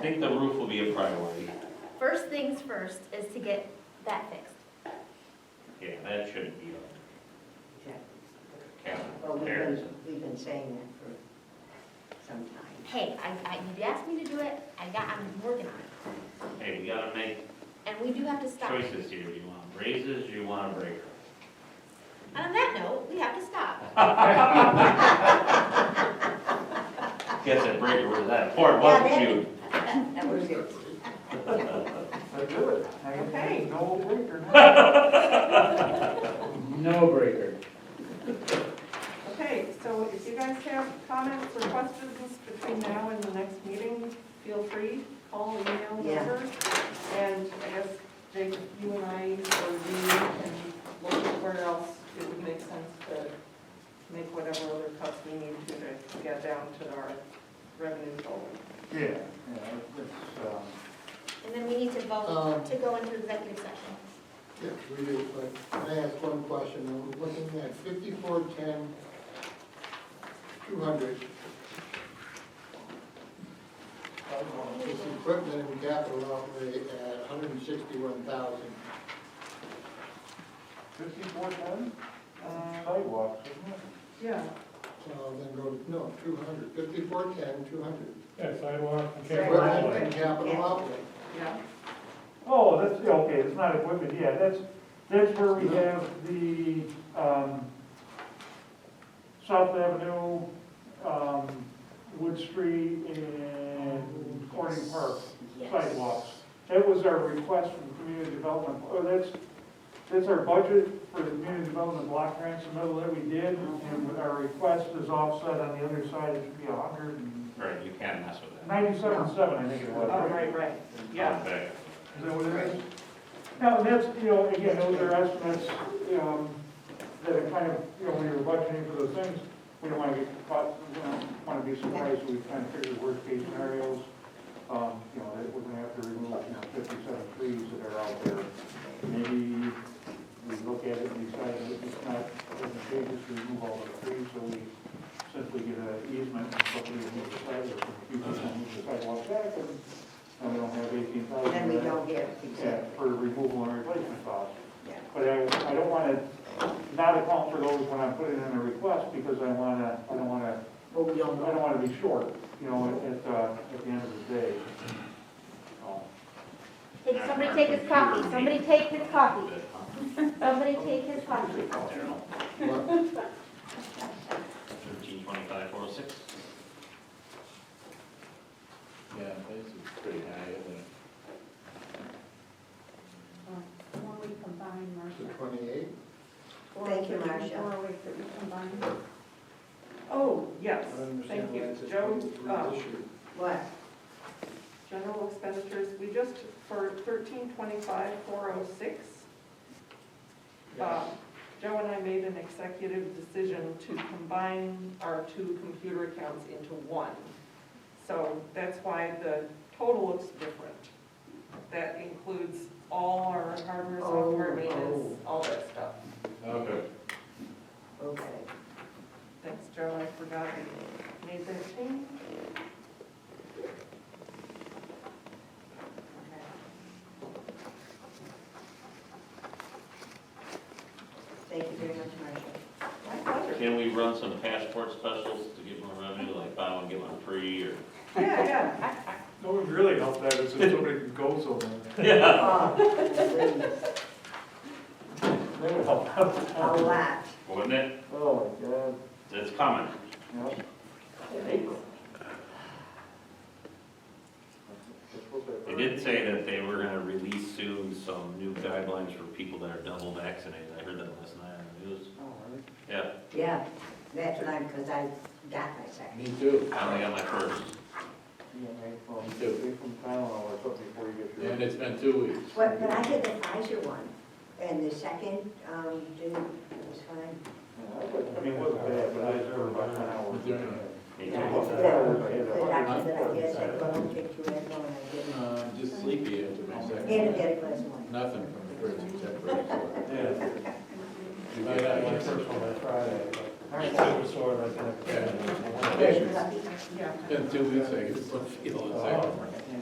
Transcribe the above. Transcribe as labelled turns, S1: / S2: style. S1: think the roof will be a priority.
S2: First things first is to get that fixed.
S1: Yeah, that shouldn't be a
S3: Well,
S1: capital
S3: we've
S1: there.
S3: been, we've been saying that for some time.
S2: Hey, I, I, you asked me to do it, I got, I'm working on it.
S1: Hey, we gotta make
S2: And we do have to stop.
S1: choices here. You want raises, you want a breaker?
S2: And on that note, we have to stop.
S1: Guess that breaker was that important, wasn't
S3: Yeah,
S1: you?
S3: That was it.
S4: I do it. I-
S3: Okay.
S4: No breaker. no.
S5: No breaker.
S6: Okay, so if you guys have comments or questions between now and the next meeting, feel free, call, email,
S3: Yeah.
S6: whatever. And I guess, Jake, you and I, or you can look at where else it would make sense to make whatever other cuts we need to to get down to our revenue goal.
S4: Yeah, yeah, it's, um,
S2: And then we need to
S7: Um.
S2: vote to go into executive session.
S7: Yes, we do, but can I ask one question? I'm looking at fifty-four, ten, two hundred. This equipment and capital outlay at hundred and sixty-one thousand.
S4: fifty-four ten,
S6: Uh,
S4: sidewalks, isn't it?
S6: Yeah,
S7: So then go, no, two hundred, fifty-four, ten, two hundred.
S8: Yeah, sidewalk and
S3: Sidewalk.
S8: capital
S7: Equipment and capital outlay.
S6: yeah,
S4: Oh, that's, yeah, okay, it's not equipment, yeah, that's, that's where we have the, um, South Avenue, um, Wood Street and Corning Park sidewalks. That was our request from community development, oh, that's, that's our budget for the community development block grants and all that we did, and our request is offset on the other side, it should be a hundred and
S1: Right, you can't mess with that.
S4: ninety-seven, seven, I think it was.
S6: oh, right, right, yeah.
S1: Okay.
S4: Is that what it is? No, that's, you know, again, those are estimates, um, that are kind of, you know, when you're budgeting for those things, we don't wanna get caught, we don't wanna be surprised, we kind of figure worst case scenarios. Um, you know, that we're gonna have to remove, you know, fifty-seven trees that are out there. Maybe we look at it and decide that it's not, doesn't pay us to remove all the trees, so we simply get an easement and hopefully remove the sidewalk, a few people move the sidewalk back, and, and we don't have eighteen thousand.
S3: Then we don't get,
S4: Yeah,
S3: exactly,
S4: for removal and replacement costs.
S3: yeah.
S4: But I, I don't wanna not account for those when I put it in a request, because I wanna, I don't wanna,
S3: Well, we
S4: I
S3: don't
S4: don't
S3: know.
S4: wanna be short, you know, at, uh, at the end of the day. Um,
S2: Take, somebody take his coffee, somebody take his coffee,
S1: Good, huh?
S2: somebody take his coffee.
S1: Thirteen twenty-five, four oh six.
S5: Yeah, this is pretty high, isn't it?
S9: Before we combine,
S7: The
S9: Marcia.
S7: twenty-eight,
S3: Thank you, Marcia.
S9: Before we combine.
S6: Oh,
S7: I
S6: yes,
S7: don't
S6: thank
S7: understand why
S6: you.
S7: it's a
S6: Joe, um,
S7: twenty-three issue.
S3: What?
S6: General expenditures, we just, for thirteen twenty-five, four oh six, uh, um, Joe and I made an executive decision to combine our two computer accounts into one. So that's why the total looks different. That includes all our hardware, software,
S3: Oh,
S6: maintenance, all that stuff.
S5: Okay.
S3: Okay.
S6: Thanks, Joe, I forgot we made that change.
S3: Thank you very much, Marcia.
S6: My pleasure.
S1: Can we run some passport specials to get more revenue, like buy one, get one free, or?
S6: Yeah, yeah.
S8: No, would really help that is if somebody goes over there.
S3: Oh,
S4: They would help out.
S3: please, A lot.
S1: Wouldn't it?
S4: Oh, my God.
S1: It's coming.
S4: Yep.
S1: They did say that they were gonna release soon some new guidelines for people that are double vaccinated. I heard that last night on the news.
S4: Oh, really?
S1: Yeah,
S3: Yeah, that's what I'm, because I got my second.
S5: Me too.
S1: I only got my first.
S4: Yeah, right, E well,
S5: Me
S4: take
S5: too.
S4: some Tylenol or something before you get your.
S5: And it's been two weeks.
S3: But, but I did the Pfizer one, and the second, um, didn't, it was fine.
S4: Yeah, I would- I mean, it wasn't bad, but I was over about an hour.
S1: Me
S3: Yeah,
S1: too.
S3: it's the- The doctor that I guess said, well, don't take two at one, and
S5: Uh, just sleepy after my
S3: I
S5: second.
S3: didn't. And I did a glass of wine.
S5: Nothing from the fridge except for Excellent.
S8: Yeah. I got my first one on Friday, but I'm super sore right now.
S5: Yeah.
S3: Lucky.
S6: Yeah.
S5: Been two weeks, I guess, I feel it's like.